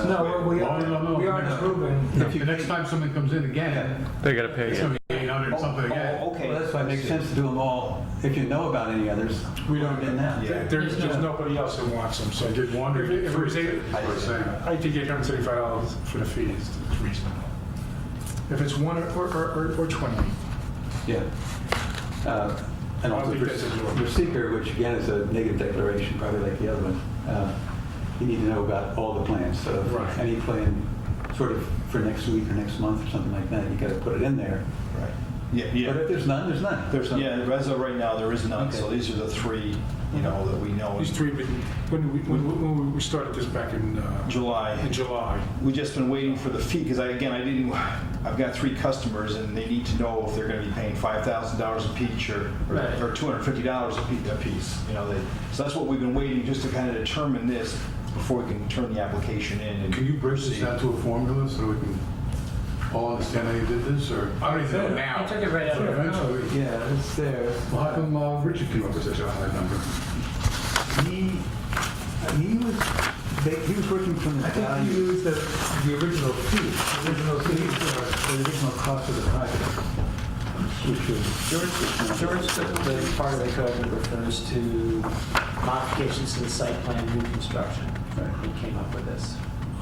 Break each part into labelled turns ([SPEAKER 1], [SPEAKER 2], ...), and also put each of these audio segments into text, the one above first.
[SPEAKER 1] No, we
[SPEAKER 2] No, no, no,
[SPEAKER 1] aren't, we aren't
[SPEAKER 2] no.
[SPEAKER 1] approving.
[SPEAKER 2] If the next time something comes in again,
[SPEAKER 3] They gotta pay
[SPEAKER 2] it's
[SPEAKER 3] you.
[SPEAKER 2] gonna be eight hundred something
[SPEAKER 4] Oh,
[SPEAKER 2] again.
[SPEAKER 5] Well, that's why it makes sense to do them all, if you know about any others.
[SPEAKER 1] We don't.
[SPEAKER 5] In that.
[SPEAKER 4] There- There's, there's nobody else who wants them, so
[SPEAKER 2] I did wonder
[SPEAKER 4] If
[SPEAKER 2] if
[SPEAKER 4] it was eight-
[SPEAKER 2] we're saying,
[SPEAKER 4] I think $875 for the fee is is reasonable. If it's one or, or, or- or 20,
[SPEAKER 5] Yeah. Uh, And
[SPEAKER 4] I don't
[SPEAKER 5] also
[SPEAKER 4] think
[SPEAKER 5] for
[SPEAKER 4] that's a-
[SPEAKER 5] for seeker, which again is a negative declaration, probably like the other one, uh, you need to know about all the plans. So if
[SPEAKER 4] Right.
[SPEAKER 5] any plan sort of for next week or next month or something like that, you got to put it in there.
[SPEAKER 6] Right. Yeah,
[SPEAKER 5] But if
[SPEAKER 6] yeah.
[SPEAKER 5] there's none, there's none.
[SPEAKER 6] There's,
[SPEAKER 5] So-
[SPEAKER 6] yeah, as of right now, there is none, so
[SPEAKER 5] Okay.
[SPEAKER 6] these are the three, you know, that we know.
[SPEAKER 4] these three, but when we, when when we started this back in, uh,
[SPEAKER 6] July.
[SPEAKER 4] in July,
[SPEAKER 6] We've just been waiting for the fee, because I, again, I didn't, I've got three customers, and they need to know if they're gonna be paying five thousand dollars a piece or,
[SPEAKER 4] Right.
[SPEAKER 6] or two hundred and fifty dollars a piece, a piece, you know, they, so that's what we've been waiting, just to kind of determine this before we can turn the application in. and-
[SPEAKER 2] can you bridge this down to a formula so we can all understand how you did this, or? I don't even know now.
[SPEAKER 1] I took it right out of your mouth.
[SPEAKER 2] Eventually.
[SPEAKER 5] Yeah, it's there.
[SPEAKER 2] Well, how come uh, Richard came up with such a high number?
[SPEAKER 5] He, uh, he was, they- he was working from the
[SPEAKER 1] I think
[SPEAKER 5] value.
[SPEAKER 1] you used the, the original fee, the original fee for
[SPEAKER 5] The original cost of the project, which was,
[SPEAKER 7] George, George, the- the part of the code that refers to modifications to the site plan, new construction.
[SPEAKER 5] Right.
[SPEAKER 7] He came up with this,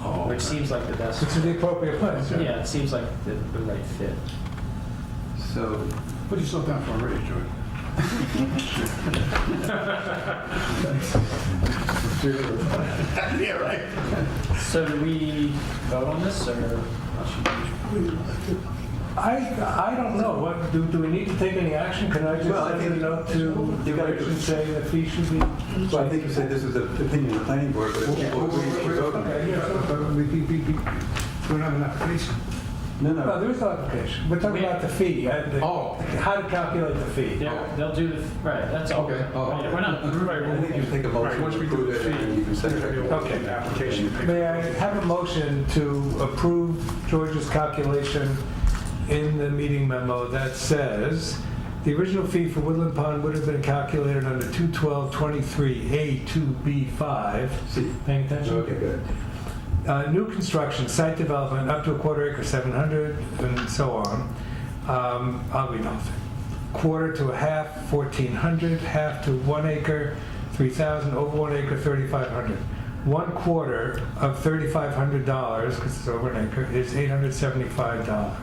[SPEAKER 2] Oh,
[SPEAKER 7] which seems like the best,
[SPEAKER 1] which is the appropriate place.
[SPEAKER 7] yeah, it seems like the the right fit.
[SPEAKER 5] so,
[SPEAKER 2] What did you slow down for already, George? Yeah, right.
[SPEAKER 7] So do we vote on this, or? how should we-
[SPEAKER 1] I, I don't know, what, do, do we need to take any action? Can I just
[SPEAKER 5] Well, I
[SPEAKER 1] send a
[SPEAKER 5] think-
[SPEAKER 1] note to
[SPEAKER 5] You gotta-
[SPEAKER 1] Rich and say the fee should be?
[SPEAKER 5] so I think you said this was an opinion of the planning board, but if people agree, you should vote on it.
[SPEAKER 2] Yeah, but we, we, we, we don't have an application.
[SPEAKER 5] No,
[SPEAKER 1] No,
[SPEAKER 5] no,
[SPEAKER 1] there is no application, we're talking
[SPEAKER 7] We-
[SPEAKER 1] about the fee, uh, the-
[SPEAKER 2] Oh.
[SPEAKER 1] how to calculate the fee.
[SPEAKER 7] They'll, they'll do, the right, that's all.
[SPEAKER 2] Okay, oh, okay.
[SPEAKER 7] We're not,
[SPEAKER 5] I think you take a
[SPEAKER 4] right,
[SPEAKER 5] motion
[SPEAKER 4] once
[SPEAKER 5] to
[SPEAKER 4] we do
[SPEAKER 5] approve
[SPEAKER 4] the
[SPEAKER 5] it,
[SPEAKER 4] fee,
[SPEAKER 5] and you can set
[SPEAKER 4] there'll be
[SPEAKER 5] it.
[SPEAKER 4] a
[SPEAKER 1] Okay.
[SPEAKER 4] application.
[SPEAKER 1] May I have a motion to approve George's calculation in the meeting memo that says, "The original fee for Woodland Pond would have been calculated under 21223A2B5."
[SPEAKER 5] See.
[SPEAKER 1] Paying attention?
[SPEAKER 5] Okay, good.
[SPEAKER 1] Uh, New construction, site development, up to a quarter acre, 700, and so on. Um, I'll read off. Quarter to a half, 1,400, half to one acre, 3,000, over one acre, 3,500. One quarter of $3,500, because it's over an acre, is $875.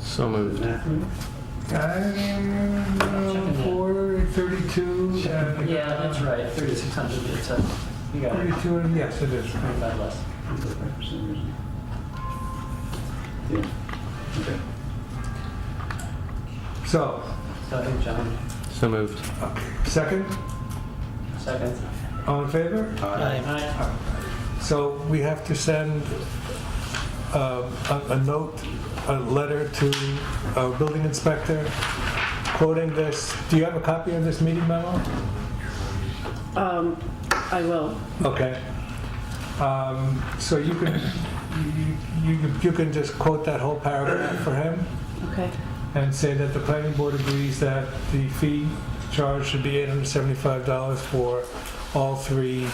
[SPEAKER 3] So moved.
[SPEAKER 1] Um, Quarter, uh, 32, and...
[SPEAKER 7] yeah, that's right, 3,600, it's a, you got it,
[SPEAKER 1] 32, and yes, it is.
[SPEAKER 7] Not bad less.
[SPEAKER 5] Yeah. Okay.
[SPEAKER 1] So,
[SPEAKER 7] So I think John,
[SPEAKER 3] So moved.
[SPEAKER 1] second,
[SPEAKER 7] second.
[SPEAKER 1] all in favor?
[SPEAKER 7] Aye.
[SPEAKER 1] So we have to send uh, a a note, a letter to our building inspector quoting this. Do you have a copy of this meeting memo?
[SPEAKER 8] Um, I will.
[SPEAKER 1] Okay. Um, So you can, you- you you can just quote that whole paragraph for him
[SPEAKER 8] Okay.
[SPEAKER 1] and say that the planning board agrees that the fee charged should be $875 for all three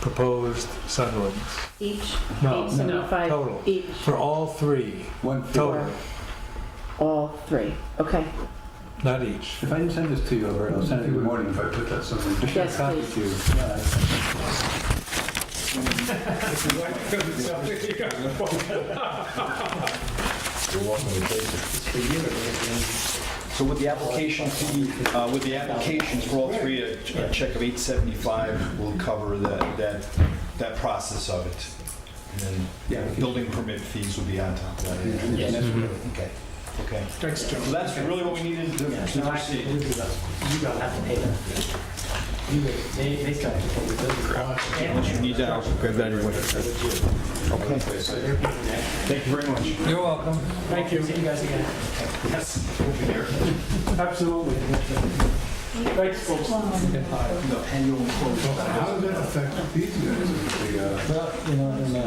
[SPEAKER 1] proposed sunrooms.
[SPEAKER 8] Each,
[SPEAKER 1] No,
[SPEAKER 8] eight
[SPEAKER 1] no,
[SPEAKER 8] seventy-five
[SPEAKER 1] total.
[SPEAKER 8] each,
[SPEAKER 1] For all three,
[SPEAKER 5] One fee.
[SPEAKER 1] total,
[SPEAKER 8] all three. Okay.
[SPEAKER 1] not each.
[SPEAKER 5] If I didn't send this to you, Albert, I'll send it in the morning.
[SPEAKER 2] If I put that something.
[SPEAKER 5] I should have
[SPEAKER 8] Yes,
[SPEAKER 5] copied
[SPEAKER 8] please.
[SPEAKER 5] you.
[SPEAKER 6] So with the application fee, uh, with the applications for all three, a a check of 875 will cover that, that, that process of it. And then building permit fees will be on top of that.
[SPEAKER 5] Yeah, that's good.
[SPEAKER 6] Okay. Okay.
[SPEAKER 4] Thanks, John.
[SPEAKER 6] So that's really what we needed to to
[SPEAKER 7] No, actually,
[SPEAKER 6] proceed.
[SPEAKER 7] you don't have to pay them. You, they, they still have to pay the business.
[SPEAKER 6] Unless you need that. Okay. Thank you very much.
[SPEAKER 1] You're welcome.
[SPEAKER 7] Thank you. See you guys again.
[SPEAKER 1] Absolutely. Thanks, folks.
[SPEAKER 2] How does that affect these guys? The, uh,
[SPEAKER 5] Well, you know, I don't know.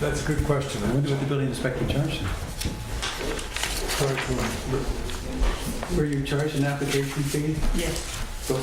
[SPEAKER 1] That's a good question.
[SPEAKER 5] I wonder what the building inspector charged you.
[SPEAKER 1] Sorry for-
[SPEAKER 5] Were you charged an application fee?
[SPEAKER 8] Yes.